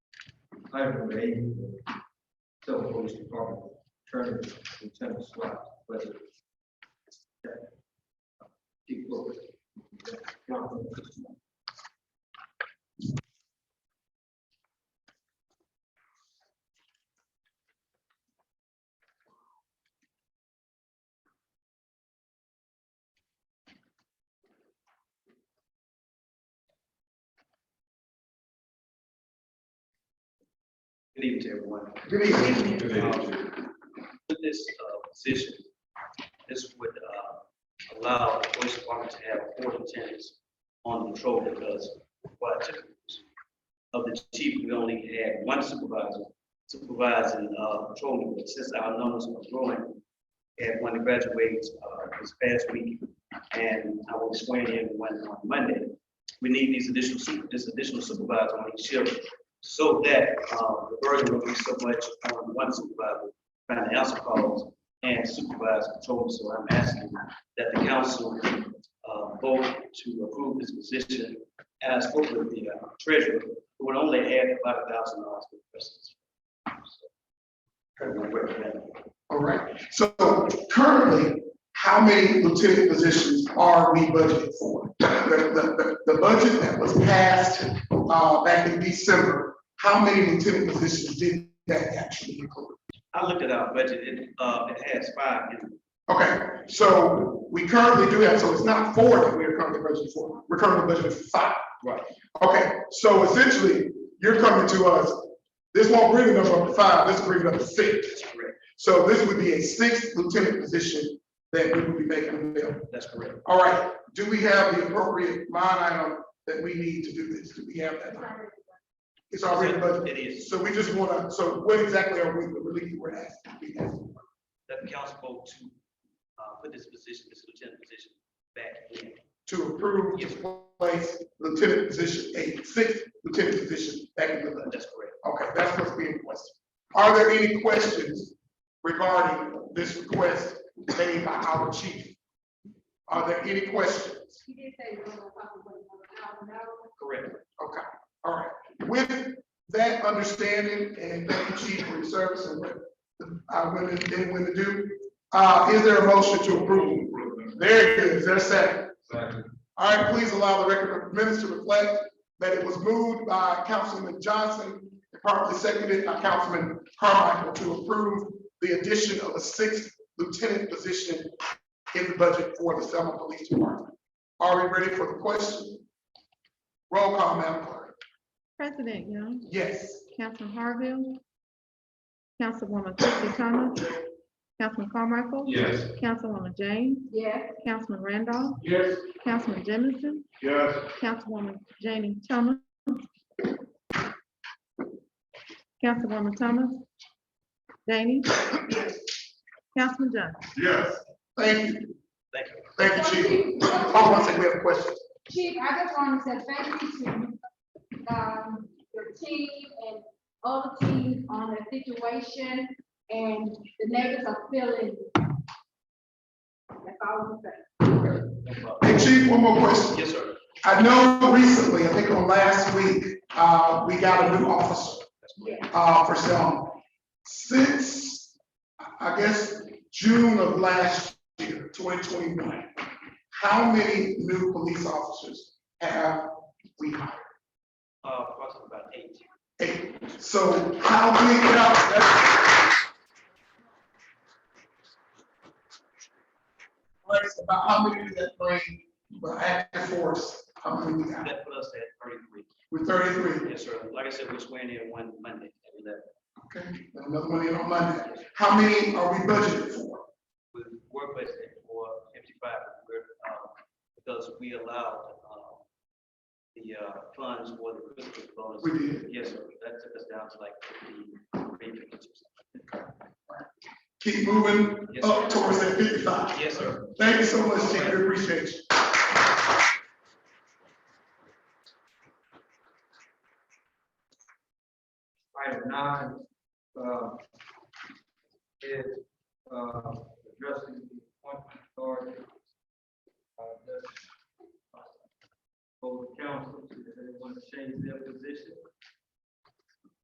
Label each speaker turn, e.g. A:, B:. A: Item number eight, Self Police Department Attorney Lieutenant Swett, President. Keep going.
B: Good evening, to everyone.
A: Good evening.
B: Um, With this uh, position, this would uh, allow the police department to have four lieutenants on patrol because while typically of the chief, we only had one supervisor supervising uh, patrolling, but since our numbers are growing, and one graduates uh, this past week, and I will swear in one on Monday, we need these additional, su- this additional supervisor on each shift so that uh, the burden will be so much on one supervisor trying to answer calls and supervise control. So I'm asking that the council uh, vote to approve this position. And I spoke with the uh, treasurer, who would only add about a thousand dollars to the presence.
C: All right, so currently, how many lieutenant positions are we budgeting for? The, the, the, the budget that was passed, uh, back in December, how many lieutenant positions did that actually include?
B: I looked at our budget, it, uh, it has five, in it.
C: Okay, so we currently do have, so it's not four that we are currently budgeting for, we're currently budgeting for five.
B: Right.
C: Okay, so essentially, you're coming to us, this won't bring it up to five, this will bring it up to six.
B: that's correct,
C: So this would be a sixth lieutenant position that we would be making available.
B: that's correct.
C: All right, do we have the appropriate line item that we need to do this? Do we have that? line? It's already budgeted.
B: It is,
C: So we just wanna, so what exactly are we, the relief we're asking? we asking?
B: that the council vote to uh, put this position, this lieutenant position back in.
C: To approve to place lieutenant position eight, sixth lieutenant position back in the budget.
B: That's correct.
C: Okay, that's what's being requested. Are there any questions regarding this request made by our chief? Are there any questions?
D: He did say he was gonna talk about it, but I don't know.
B: Correct.
C: Okay, all right. With that understanding, and thank you, Chief, for your service and what our women did when to do, uh, is there a motion to approve? Very good, is there a second? All right, please allow the record of minutes to reflect that it was moved by Councilman Johnson, and properly seconded by Councilman Carmichael to approve the addition of a sixth lieutenant position in the budget for the Selma Police Department. Are we ready for the question? Roll call, Madam Clerk.
E: President Young,
C: Yes.
E: Councilman Harville, Councilwoman Christie Thomas, Councilman Carmichael.
C: Yes.
E: Councilwoman James,
D: Yeah,
E: Councilman Randolph,
C: Yes.
E: Councilman Jimmison,
C: Yes.
E: Councilwoman Jamie Thomas. Councilwoman Thomas, Janey, Councilman Johnson.
C: Yes. Thank you.
B: Thank you.
C: Thank you, Chief. Hold on a second, we have a question.
D: Chief, I just want to say thank you to, um, your team and all the team on the situation and the neighbors are feeling. That's all I'm saying.
B: No problem.
C: Hey, Chief, one more question.
B: Yes, sir.
C: I know recently, I think on last week, uh, we got a new officer,
B: That's correct.
C: uh, for Selma. Since, I guess, June of last year, twenty twenty-one, how many new police officers have we hired?
B: Uh, approximately about eight.
C: Eight. So how many, now, that's- Lex, about how many did that bring, the active force, how many we got?
B: That put us at thirty-three.
C: We're thirty-three,
B: Yes, sir. Like I said, we're swearing in one Monday. and that
C: okay, Got another one in on Monday. How many are we budgeted for?
B: We were budgeted for fifty-five, we're, uh, because we allowed, uh, the, uh, funds for the Christmas bonus.
C: We did.
B: Yes, sir. That took us down to like fifty-three, fifty-two.
C: Keep moving
B: Yes,
C: up
B: sir.
C: towards that fifty-five.
B: Yes, sir.
C: Thank you so much, Chief, we appreciate you.
A: Item nine, uh, is, uh, addressing the appointment authority. Uh, that's, uh, For the council, if they want to uh, change their position,